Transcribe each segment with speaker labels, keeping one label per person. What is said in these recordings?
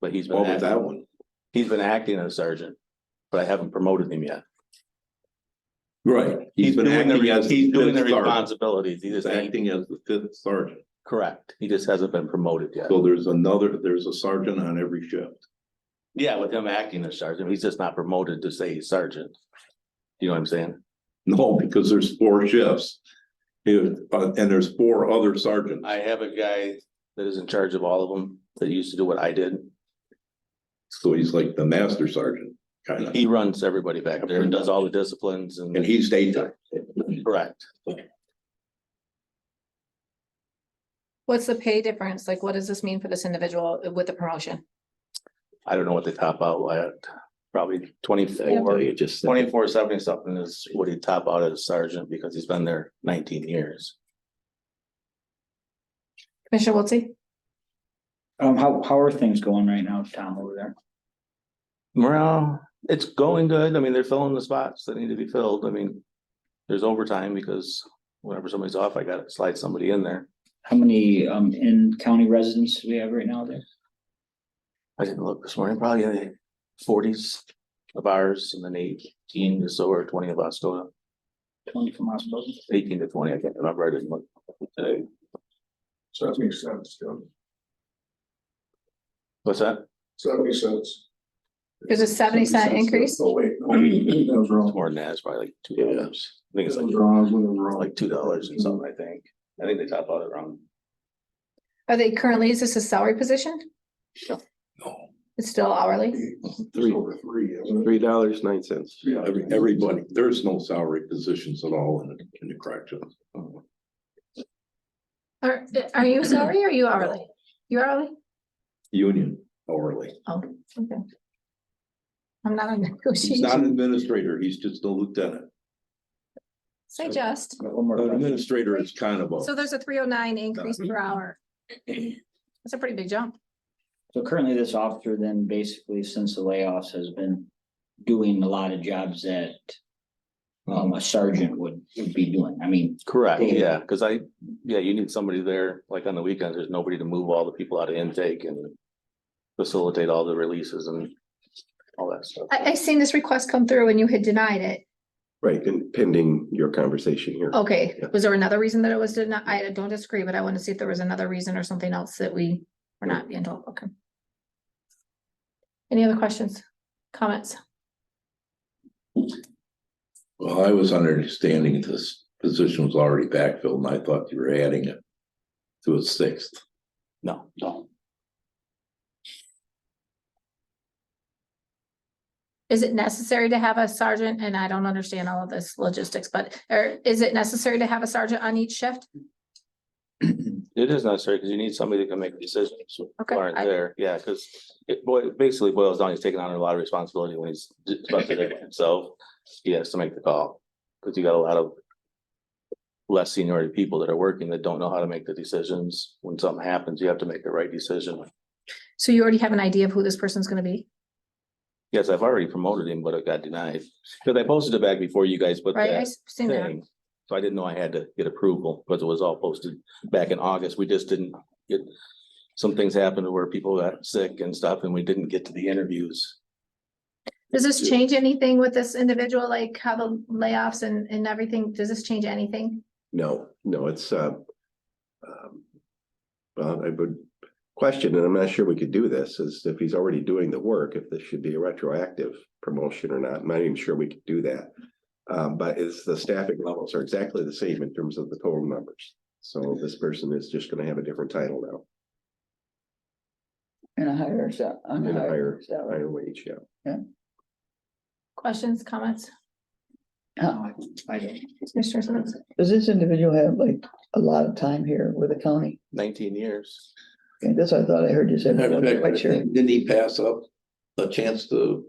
Speaker 1: but he's been,
Speaker 2: What was that
Speaker 1: act-
Speaker 2: one?
Speaker 1: he's been acting as sergeant, but I haven't promoted him yet.
Speaker 2: Right.
Speaker 1: He's
Speaker 2: been
Speaker 1: doing the,
Speaker 2: acting
Speaker 1: re-
Speaker 2: as
Speaker 1: he's doing the
Speaker 2: fifth sergeant.
Speaker 1: responsibilities. He
Speaker 2: He's
Speaker 1: just ain't,
Speaker 2: acting as the fifth sergeant.
Speaker 1: correct. He just hasn't been promoted yet.
Speaker 2: So there's another, there's a sergeant on every shift.
Speaker 1: Yeah, with him acting as sergeant, he's just not promoted to say he's sergeant. You know what I'm saying?
Speaker 2: No, because there's four shifts. If- uh, and there's four other sergeants.
Speaker 1: I have a guy that is in charge of all of them that used to do what I did.
Speaker 2: So he's like the master sergeant, kind of.
Speaker 1: He runs everybody back there and does all the disciplines
Speaker 2: And
Speaker 1: and,
Speaker 2: he's daytime.
Speaker 1: correct.
Speaker 3: What's the pay difference? Like, what does this mean for this individual with the promotion?
Speaker 1: I don't know what they top out at, probably twenty-four,
Speaker 4: You just. said.
Speaker 1: twenty-four seventy something is what he top out as sergeant because he's been there nineteen years.
Speaker 3: Commissioner Wiltie?
Speaker 4: Um, how, how are things going right now, Tom, over there?
Speaker 1: Well, it's going good. I mean, they're filling the spots that need to be filled. I mean, there's overtime because whenever somebody's off, I gotta slide somebody in there.
Speaker 4: How many, um, in county residents do we have right now there?
Speaker 1: I didn't look this morning, probably in the forties of ours and then eighteen or so or twenty of us going up,
Speaker 4: Twenty from hospitals?
Speaker 1: eighteen to twenty, I can't remember, I didn't look today.
Speaker 5: Seventy cents, Jim.
Speaker 1: What's that?
Speaker 5: Seventy cents.
Speaker 3: There's a 70 cent increase?
Speaker 5: Oh, wait, no, that was
Speaker 1: It's
Speaker 5: wrong.
Speaker 1: more than that, it's probably like two dollars. I think it's
Speaker 5: That was
Speaker 1: like,
Speaker 5: wrong, I was looking wrong.
Speaker 1: like two dollars and something, I think. I think they top out at around
Speaker 3: Are they currently, is this a salary position?
Speaker 2: No,
Speaker 3: It's still hourly?
Speaker 5: It's over three, isn't it?
Speaker 6: Three dollars, nine cents.
Speaker 5: Yeah.
Speaker 2: Every, everybody, there's no salary positions at all in the, in the corrections.
Speaker 3: Are, are you salary or are you hourly? You hourly?
Speaker 2: Union hourly.
Speaker 3: Oh, okay. I'm not
Speaker 2: He's not
Speaker 3: on
Speaker 2: an
Speaker 3: negotiation.
Speaker 2: administrator. He's just a lieutenant.
Speaker 3: Say just.
Speaker 4: One more
Speaker 2: An
Speaker 4: question.
Speaker 2: administrator is kind of a.
Speaker 3: So there's a three oh nine increase per hour. That's a pretty big jump.
Speaker 4: So currently this officer then basically since the layoffs has been doing a lot of jobs that um, a sergeant would, would be doing. I mean,
Speaker 1: Correct,
Speaker 4: Yeah.
Speaker 1: yeah, because I, yeah, you need somebody there, like on the weekends, there's nobody to move all the people out of intake and facilitate all the releases and all that stuff.
Speaker 3: I, I seen this request come through and you had denied it.
Speaker 6: Right, and pending your conversation here.
Speaker 3: Okay,
Speaker 6: Yeah.
Speaker 3: was there another reason that it was denied? I don't disagree, but I want to see if there was another reason or something else that we were not being told. Okay. Any other questions, comments?
Speaker 2: Well, I was under understanding this position was already backfilled and I thought you were adding it to a sixth.
Speaker 1: No, no.
Speaker 3: Is it necessary to have a sergeant? And I don't understand all of this logistics, but or is it necessary to have a sergeant on each shift?
Speaker 1: It is necessary because you need somebody that can make decisions who
Speaker 3: Okay,
Speaker 1: aren't
Speaker 3: I-
Speaker 1: there, yeah, because it boi- basically boils down, he's taking on a lot of responsibility when he's especially there by himself. He has to make the call, because you got a lot of less seniority people that are working that don't know how to make the decisions. When something happens, you have to make the right decision.
Speaker 3: So you already have an idea of who this person's gonna be,
Speaker 1: Yes, I've already promoted him, but it got denied. Cause I posted it back before you guys put
Speaker 3: right? I
Speaker 1: that
Speaker 3: s- seen that.
Speaker 1: thing. So I didn't know I had to get approval, because it was all posted back in August. We just didn't get. Some things happened where people got sick and stuff and we didn't get to the interviews.
Speaker 3: Does this change anything with this individual, like how the layoffs and, and everything? Does this change anything?
Speaker 6: No, no, it's, uh, um, well, I would question, and I'm not sure we could do this, is if he's already doing the work, if this should be a retroactive promotion or not. I'm not even sure we could do that. Um, but it's the staffing levels are exactly the same in terms of the total numbers. So this person is just gonna have a different title now
Speaker 4: And a higher, so,
Speaker 6: and a higher, higher wage, yeah.
Speaker 3: Questions, comments?
Speaker 4: I don't.
Speaker 3: Commissioner Simmons?
Speaker 7: Does this individual have like a lot of time here with the county?
Speaker 1: Nineteen years.
Speaker 7: Okay, that's what I thought I heard you said. but I wasn't quite sure.
Speaker 2: Didn't he pass up a chance to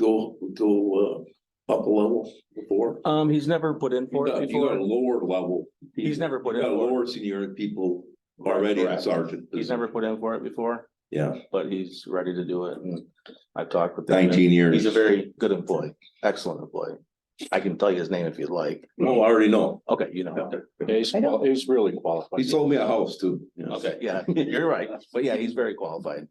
Speaker 2: go, go uh, up a level before?
Speaker 1: Um, he's never put in for it
Speaker 2: You got a
Speaker 1: before.
Speaker 2: lower level.
Speaker 1: He's never put
Speaker 2: You
Speaker 1: in
Speaker 2: got
Speaker 1: for it.
Speaker 2: lower senior people already in
Speaker 1: Correct.
Speaker 2: sergeant.
Speaker 1: He's never put in for it before,
Speaker 2: Yeah,
Speaker 1: but he's ready to do it and I've talked with. him.
Speaker 2: Mm. nineteen years.
Speaker 1: He's a very good employee, excellent employee. I can tell you his name if you'd like.
Speaker 2: No, Oh, I already know.
Speaker 1: Okay, you know.
Speaker 8: He's,
Speaker 7: I don't-
Speaker 8: qual- he's really qualified.
Speaker 2: He sold me a house too.
Speaker 1: Okay, yeah, you're right. But yeah, he's very qualified.